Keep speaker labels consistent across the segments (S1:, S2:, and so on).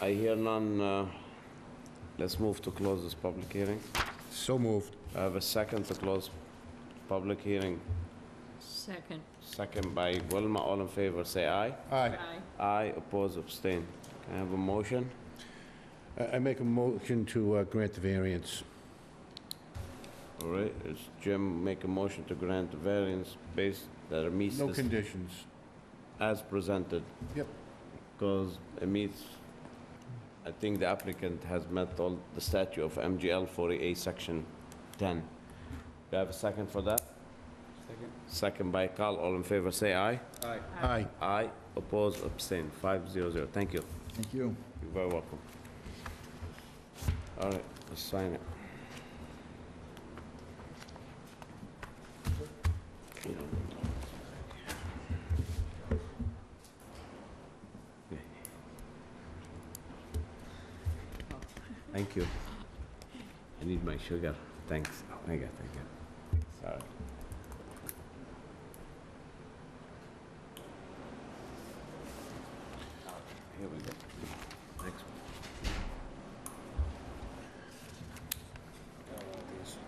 S1: I hear none. uh, Let's move to close this public hearing.
S2: So moved.
S1: I have a second to close public hearing.
S3: Second,
S1: Second by Wilma. All in favor, say aye.
S2: Aye.
S3: aye.
S1: Aye, oppose, abstain. Can I have a motion?
S2: I I make a motion to uh, grant the variance.
S1: All right, is Jim make a motion to grant the variance based that it meets
S2: No
S1: this-
S2: conditions.
S1: as presented?
S2: Yep.
S1: Because it meets, I think the applicant has met all the statute of MGL 40A, Section 10. Do I have a second for that? Second by Carl. All in favor, say aye.
S2: Aye.
S1: Aye, oppose, abstain, 500. Thank you.
S4: Thank you.
S1: You're very welcome. All right, let's sign it. Thank you. I need my sugar. Thanks. Oh, Thank you, thank you. Sorry. Here we go. Next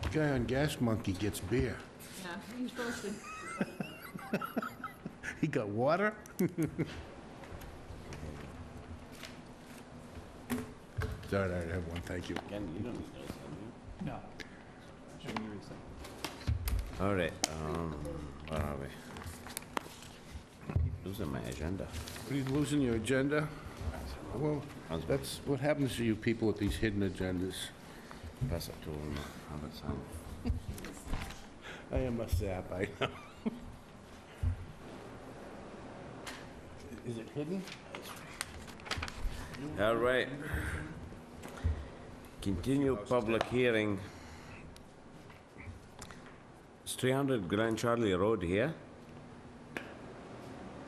S1: one.
S2: Guy on Gas Monkey gets beer.
S3: Yeah, he's supposed to,
S2: He got water? Sorry, I have one, thank you.
S1: Again, you don't need those, do
S4: No.
S1: you? All right, um, where are we? Keep Losing my agenda.
S2: Are you losing your agenda? Well, that's what happens to you people with these hidden agendas.
S1: Pass it to him, have it signed.
S2: I am a sap, I know. Is it hidden?
S1: All right. Continue public hearing. It's 300 Grand Charlie Road here?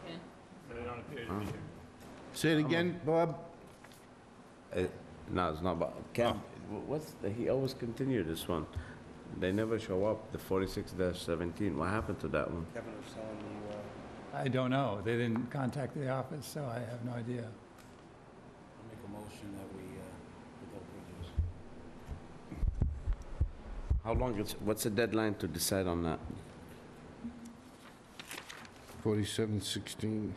S3: yeah.
S2: Say it again, Bob?
S1: Uh, No, it's not, but Cam, wh- what's, the- he always continue this one. They never show up, the 46-17. What happened to that one?
S5: Kevin was telling you, uh,
S4: I don't know. They didn't contact the office, so I have no idea.
S5: I'll make a motion that we, uh, without prejudice.
S1: How long is, what's the deadline to decide on that?
S2: 4716.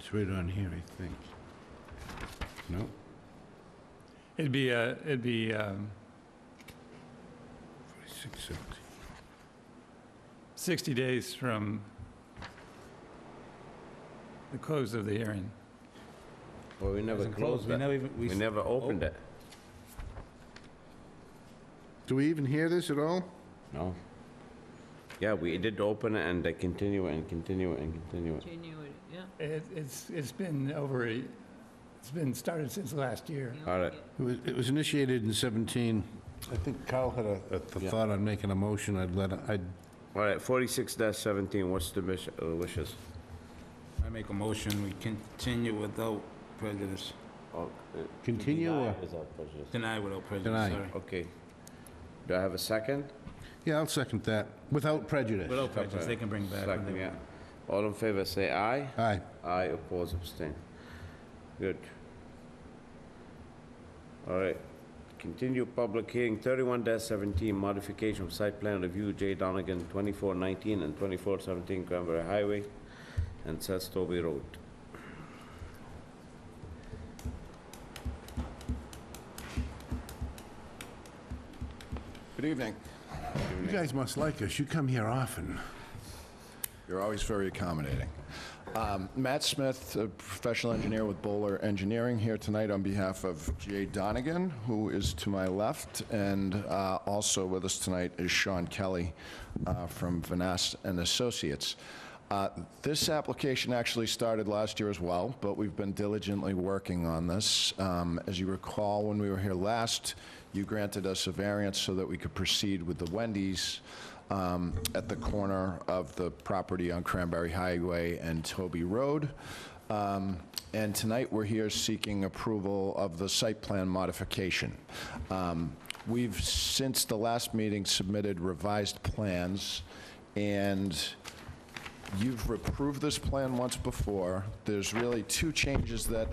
S2: It's right on here, I think. No?
S4: It'd be, uh, it'd be, um,
S2: 4617.
S4: 60 days from the close of the hearing.
S1: Well, we never closed that. We never opened it.
S2: Do we even hear this at all?
S1: No. Yeah, we did open it and they continue it and continue it and continue it.
S3: continue it, yeah.
S4: It, it's, it's been over, a- it's been started since last year.
S3: yeah,
S1: All right.
S2: It was- It was initiated in 17. I think Kyle had a a th-
S1: Yeah.
S2: thought on making a motion, I'd let, I'd,
S1: All right, 46-17, what's the wish- uh, wishes?
S5: I make a motion, we continue without prejudice.
S1: Oh, uh,
S2: Continue deny or-
S5: Deny
S2: Deny.
S5: without prejudice, sorry.
S1: Okay. Do I have a second?
S2: yeah, I'll second that, without prejudice.
S5: Without prejudice, they can bring back when they
S1: Second, yeah.
S5: want.
S1: All in favor, say aye.
S2: Aye.
S1: Aye, oppose, abstain. Good. All right, continue public hearing, thirty-one seventeen, modification of site plan review, J Donegan, twenty-four nineteen and twenty-four seventeen Cranberry Highway and Sestoby Road.
S6: Good evening.
S2: You guys must like us, you come here often.
S6: You're always very accommodating. Um, Matt Smith, a professional engineer with Bowler Engineering, here tonight on behalf of Jay Donegan, who is to my left, and uh, also with us tonight is Sean Kelly uh, from Vanast and Associates. Uh, This application actually started last year as well, but we've been diligently working on this. Um, As you recall, when we were here last, you granted us a variance so that we could proceed with the Wendy's um, at the corner of the property on Cranberry Highway and Toby Road. Um, And tonight, we're here seeking approval of the site plan modification. Um, We've, since the last meeting, submitted revised plans, and You've approved this plan once before. There's really two changes that